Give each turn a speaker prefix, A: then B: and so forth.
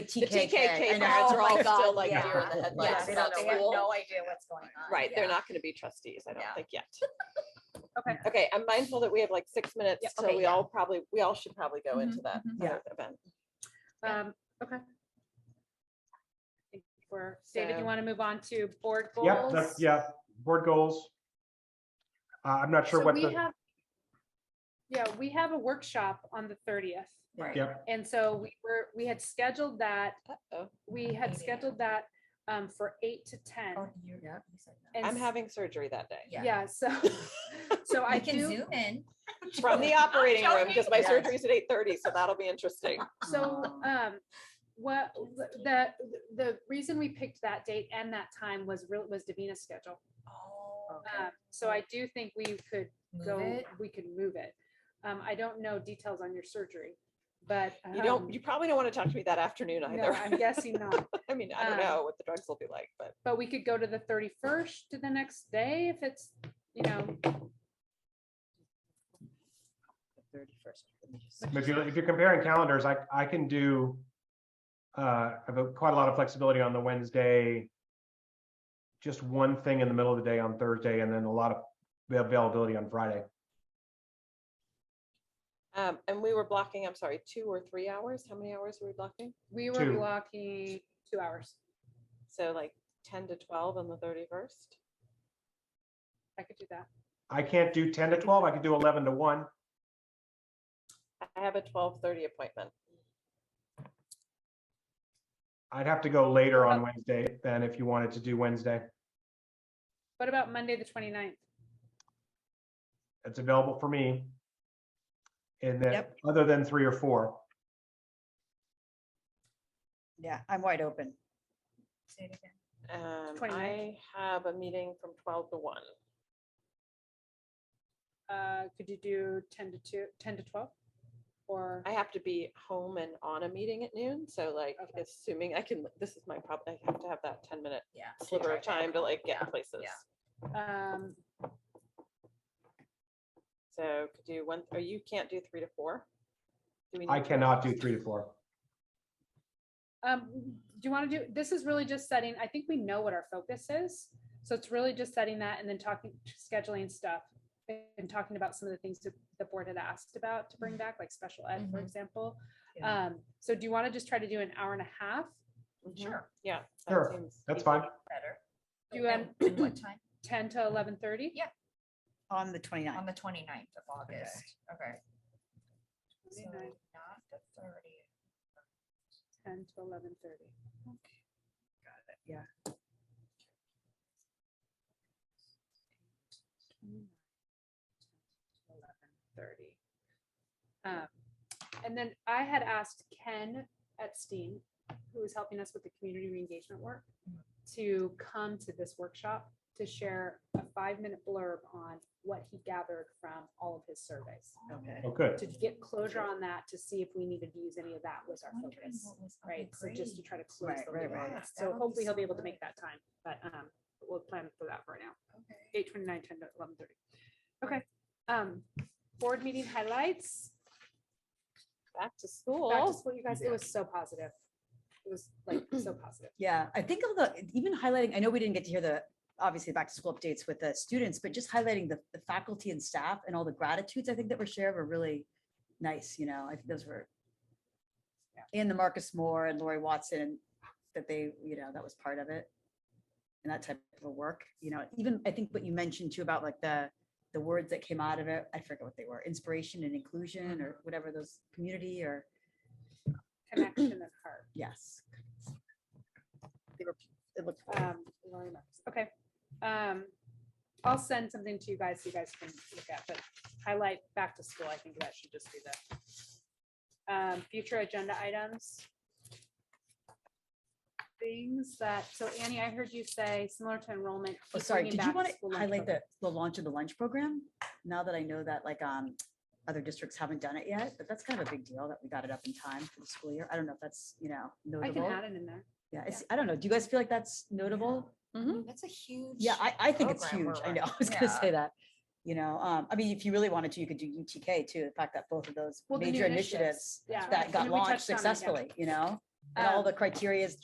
A: TKK.
B: TKK
A: I know,
B: crowds
A: it's
B: are
A: like, oh,
B: all still, like,
A: yeah.
B: deer in the
A: Yeah,
B: headlights
A: They don't
B: about
A: know, they have
B: school.
A: no idea what's going on.
B: Right, they're
A: Yeah.
B: not gonna be trustees, I don't
A: Yeah.
B: think yet.
C: Okay.
B: Okay, I'm mindful that we have like six minutes,
C: Yeah,
B: so
C: okay,
B: we
C: yeah.
B: all probably, we all should probably go
C: Mhm,
B: into that
C: mhm.
A: Yeah.
B: other event.
A: Yeah.
C: Um, okay. Think We're, David,
B: So-
C: you want to move on to board goals?
D: Yep, that's, yeah, board goals. Uh, I'm not sure
C: So
D: what
C: we
D: the,
C: have- Yeah, we have a workshop on the thirtieth,
A: Right.
D: yep,
C: and so we were, we had scheduled that,
B: Uh-oh,
C: we had
A: Meeting.
C: scheduled that um, for eight to ten.
A: Oh, you- yeah, you said that.
C: And
B: I'm
C: s-
B: having surgery that day,
A: Yeah.
C: Yeah, so, so I
A: You can
C: do,
A: zoom in.
B: from the operating room, because my
A: Yeah.
B: surgery's at eight thirty, so that'll be interesting.
C: so,
A: Oh.
C: um, what,
A: Kids
C: the-
A: can't-
C: the, the reason we picked that date and that time was real, was Davina's schedule.
A: Oh,
C: Um, so I do think we could
A: move
C: go,
A: it.
C: we could move it. Um, I don't know details on your surgery, but.
B: You don't,
C: um,
B: you probably don't want to talk to me that afternoon
C: No,
B: either.
C: I'm guessing not,
B: I mean, I don't
C: um,
B: know what the drugs will be like, but
C: but we could go to the thirty-first to the next day if it's, you know,
B: thirty-first.
D: if you're, if you're comparing calendars, I, I can do. Uh, I've got quite a lot of flexibility on the Wednesday. Just one thing in the middle of the day on Thursday and then a lot of availability on Friday.
B: Um, and we were blocking, I'm sorry, two or three hours? How many hours were we blocking?
C: we were
D: Two.
C: blocking two hours.
B: So like ten to twelve on the thirty-first?
C: I could do that.
D: I can't do ten to twelve, I could do eleven to one.
B: I have a twelve-thirty appointment.
D: I'd have to go later
C: Uh,
D: on Wednesday than if you wanted to do Wednesday.
C: What about Monday, the 29th?
D: It's available for me. And then, other than three or four,
E: Yeah, I'm wide open.
A: Say it again.
B: Um,
C: 29th.
B: I have a meeting from twelve to one.
C: Uh, could you do ten to two, ten to twelve? Or,
B: I have to be home and on a meeting at noon, so like,
C: Okay.
B: assuming I can, this is my problem, I have to have that ten-minute
A: Yeah.
B: sliver of time to like get places.
A: yeah.
C: um,
B: So could do one, or you can't do three to four? Do we
D: I
B: need to-
D: cannot do three to four.
C: Um, do you want to do, this is really just setting, I think we know what our focus is. So it's really just setting that and then talking, scheduling stuff and talking about some of the things that the board had asked about to bring back, like special ed, for
A: Mhm.
C: example.
A: Yeah.
C: Um, so do you want to just try to do an hour and a half?
B: Mhm.
A: Sure,
B: Yeah. that
D: Sure,
B: seems
D: That's
B: easy.
D: fine.
A: better.
C: Do
A: And-
C: an-
A: and What time?
C: Ten to eleven thirty?
A: Yeah.
E: On the 29th.
A: On the 29th of August, okay. So
C: 29th.
A: not the thirtieth.
C: Ten to eleven thirty.
E: Yeah.
C: Thirty. Um, and then I had asked Ken at Steam, who is helping us with the community reengagement work, to come to this workshop to share a five-minute blurb on what he gathered from all of his surveys.
E: Okay.
D: Oh, good.
C: To get closure on that, to see if we needed to use any of that was our focus right? So just to try to close
E: Right,
C: the
E: right,
C: loop on
E: right.
C: that.
A: That
C: So
A: would be
C: hopefully he'll
A: so
C: be able to
A: good.
C: make that time, but um, we'll plan for that for now. Eight twenty-nine, ten to eleven thirty. Okay, um, board meeting highlights.
B: Back to
C: Back to
B: school.
C: school, you guys, it was so positive. It was like so positive.
E: Yeah, I think all the, even highlighting, I know we didn't get to hear the, obviously, back to school updates with the students, but just highlighting the, the faculty and staff and all the gratitudes, I think that were shared were really nice, you know, I think those were. And the Marcus Moore and Lori Watson, that they, you know, that was part of it. And that type of work, you know, even, I think what you mentioned too about like the, the words that came out of it, I forget what they were, inspiration and inclusion or whatever those, community or,
C: Connection at heart.
E: yes. Uh, They were, it looked.
C: Um, Lori Marcus. Okay. Um, I'll send something to you guys, so you guys can look at, but highlight back to school. I think that should just be the um, future agenda items. Things that, so Annie, I heard you say similar to enrollment.
E: Oh,
C: keep
E: sorry,
C: bringing
E: did you
C: back
E: want
C: school
E: to
C: lunch
E: highlight
C: program.
E: the, the launch of the lunch program? Now that I know that like, um, other districts haven't done it yet, but that's kind of a big deal that we got it up in time for the school year. I don't know if that's, you know,
C: I can
E: notable.
C: add it in there.
E: Yeah, it's, I don't know. Do you guys feel like that's notable?
A: That's a huge.
E: Yeah, I, I think it's
A: program we're
E: huge. I know, I
A: running.
E: was gonna
A: Yeah.
E: say that. You know, um, I mean, if you really wanted to, you could do UTK too, the fact that both of those
C: Well, the new
E: major
C: initiatives,
E: initiatives
C: Yeah.
E: that
C: I
E: got
C: mean, we
E: launched
C: touched on it, yeah.
E: successfully, you know? And all
C: Um,
E: the criterias